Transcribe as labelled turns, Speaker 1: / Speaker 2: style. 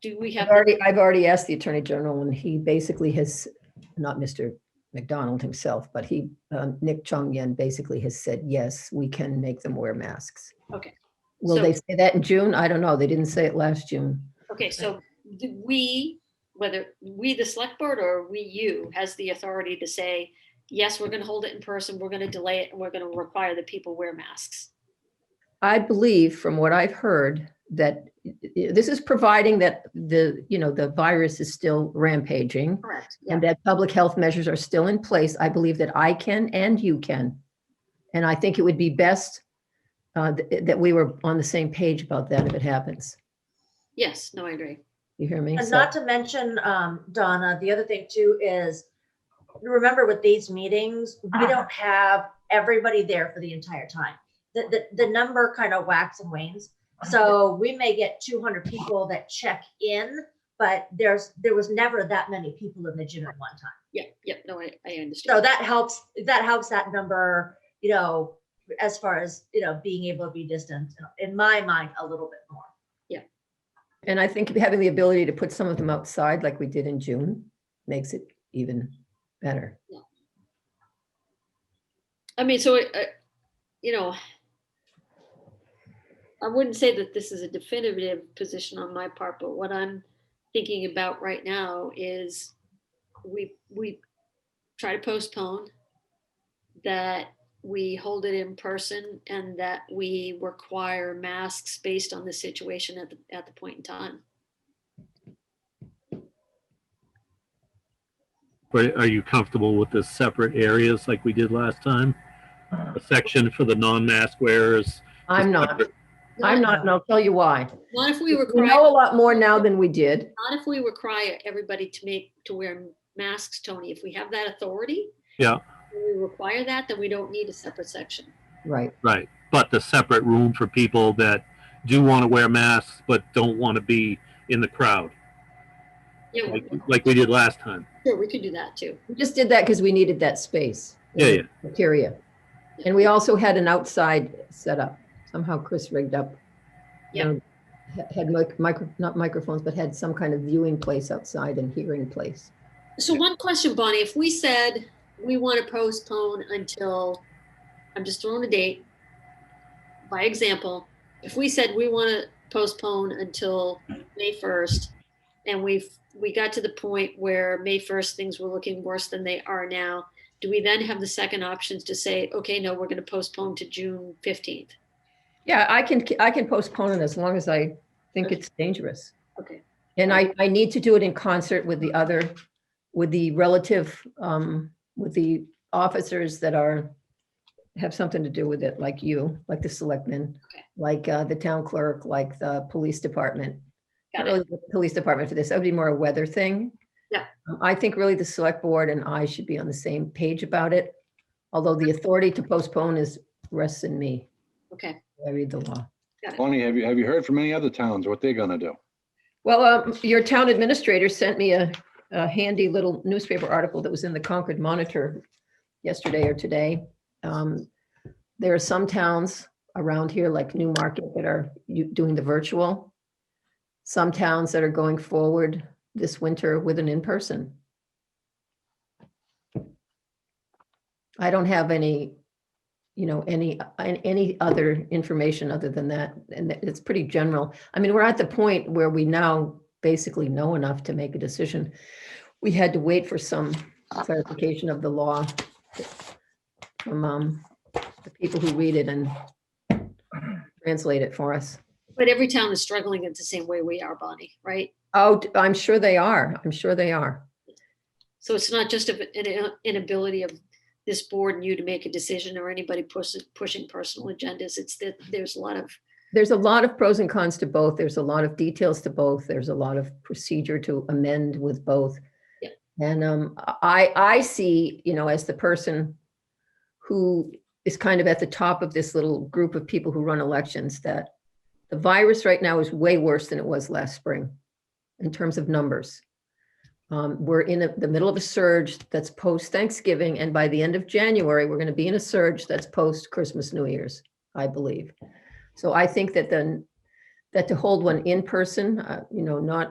Speaker 1: do we
Speaker 2: I've
Speaker 1: have,
Speaker 2: already, I've already asked the Attorney General and he basically has, not Mr. McDonald himself, but he, um, Nick Chung Yen basically has said, yes, we can make them wear masks.
Speaker 1: Okay.
Speaker 2: Will
Speaker 1: So-
Speaker 2: they say that in June? I don't know. They didn't say it last June.
Speaker 1: okay, so do we, whether we, the select board, or we, you, has the authority to say, yes, we're gonna hold it in person, we're gonna delay it, and we're gonna require that people wear masks.
Speaker 2: I believe, from what I've heard, that i- i- this is providing that the, you know, the virus is still rampaging
Speaker 1: Correct. Yeah,
Speaker 2: and that public health measures are still in place. I believe that I can and you can. And I think it would be best uh, th- that we were on the same page about that if it happens.
Speaker 1: yes, no, I agree.
Speaker 2: You hear me?
Speaker 3: And
Speaker 2: So-
Speaker 3: not to mention, um, Donna, the other thing too is, remember with these meetings, we don't have everybody there for the entire time. The, the, the number kind of whacks and wanes. So we may get two hundred people that check in, but there's, there was never that many people in the gym at one time.
Speaker 1: Yeah, yeah, no, I, I understand.
Speaker 3: So that helps, that helps that number, you know, as far as, you know, being able to be distant, in my mind, a little bit more.
Speaker 2: And I think having the ability to put some of them outside like we did in June makes it even better.
Speaker 1: I mean, so, it- I- you know, I wouldn't say that this is a definitive position on my part, but what I'm thinking about right now is we, we try to postpone that we hold it in person and that we require masks based on the situation at the, at the point in time.
Speaker 4: But are you comfortable with the separate areas like we did last time? A section for the non-mask wearers?
Speaker 2: I'm not, I'm not, and I'll tell you why.
Speaker 1: Not if we
Speaker 2: We
Speaker 1: require,
Speaker 2: know a lot more now than we did.
Speaker 1: not if we require everybody to make, to wear masks, Tony, if we have that authority.
Speaker 4: Yeah,
Speaker 1: when we require that, then we don't need a separate section.
Speaker 2: Right.
Speaker 4: right. But the separate room for people that do want to wear masks but don't want to be in the crowd,
Speaker 1: Yeah,
Speaker 4: like,
Speaker 1: we-
Speaker 4: like we did last time.
Speaker 1: sure, we could do that too.
Speaker 2: We just did that because we needed that space.
Speaker 4: Yeah, yeah.
Speaker 2: Criteria. And we also had an outside setup. Somehow Chris rigged up. you
Speaker 1: Yeah.
Speaker 2: know, ha- Had mic- micro, not microphones, but had some kind of viewing place outside and hearing place.
Speaker 1: So one question, Bonnie, if we said we want to postpone until, I'm just throwing a date, by example, if we said we want to postpone until May 1st, and we've, we got to the point where May 1st, things were looking worse than they are now, do we then have the second options to say, okay, no, we're going to postpone to June 15th?
Speaker 2: Yeah, I can, I can postpone it as long as I think it's dangerous.
Speaker 1: Okay,
Speaker 2: And I, I need to do it in concert with the other, with the relative, um, with the officers that are, have something to do with it, like you, like the selectmen,
Speaker 1: Okay.
Speaker 2: like, uh, the town clerk, like the police department. Not
Speaker 1: got
Speaker 2: really
Speaker 1: it.
Speaker 2: the police department for this, that would be more a weather thing.
Speaker 1: Yeah.
Speaker 2: Um, I think really the select board and I should be on the same page about it, although the authority to postpone is, rests in me.
Speaker 1: Okay.
Speaker 2: I read the law.
Speaker 5: Tony, have you, have you heard from any other towns what they're gonna do?
Speaker 2: Well, um, your town administrator sent me a, a handy little newspaper article that was in the Concord Monitor yesterday or today. Um, There are some towns around here like Newmarket that are u- doing the virtual. Some towns that are going forward this winter with an in-person. I don't have any, you know, any, any other information other than that. And it's pretty general. I mean, we're at the point where we now basically know enough to make a decision. We had to wait for some clarification of the law from um, the people who read it and translate it for us.
Speaker 1: But every town is struggling in the same way we are, Bonnie, right?
Speaker 2: Oh, I'm sure they are. I'm sure they are.
Speaker 1: So it's not just of an inability of this board and you to make a decision or anybody pushing, pushing personal agendas. It's that there's a lot of,
Speaker 2: There's a lot of pros and cons to both. There's a lot of details to both. There's a lot of procedure to amend with both.
Speaker 1: Yeah.
Speaker 2: And um, I, I see, you know, as the person who is kind of at the top of this little group of people who run elections, that the virus right now is way worse than it was last spring in terms of numbers. Um, We're in a- the middle of a surge that's post Thanksgiving, and by the end of January, we're going to be in a surge that's post Christmas, New Year's, I believe. So I think that then, that to hold one in person, uh, you know, not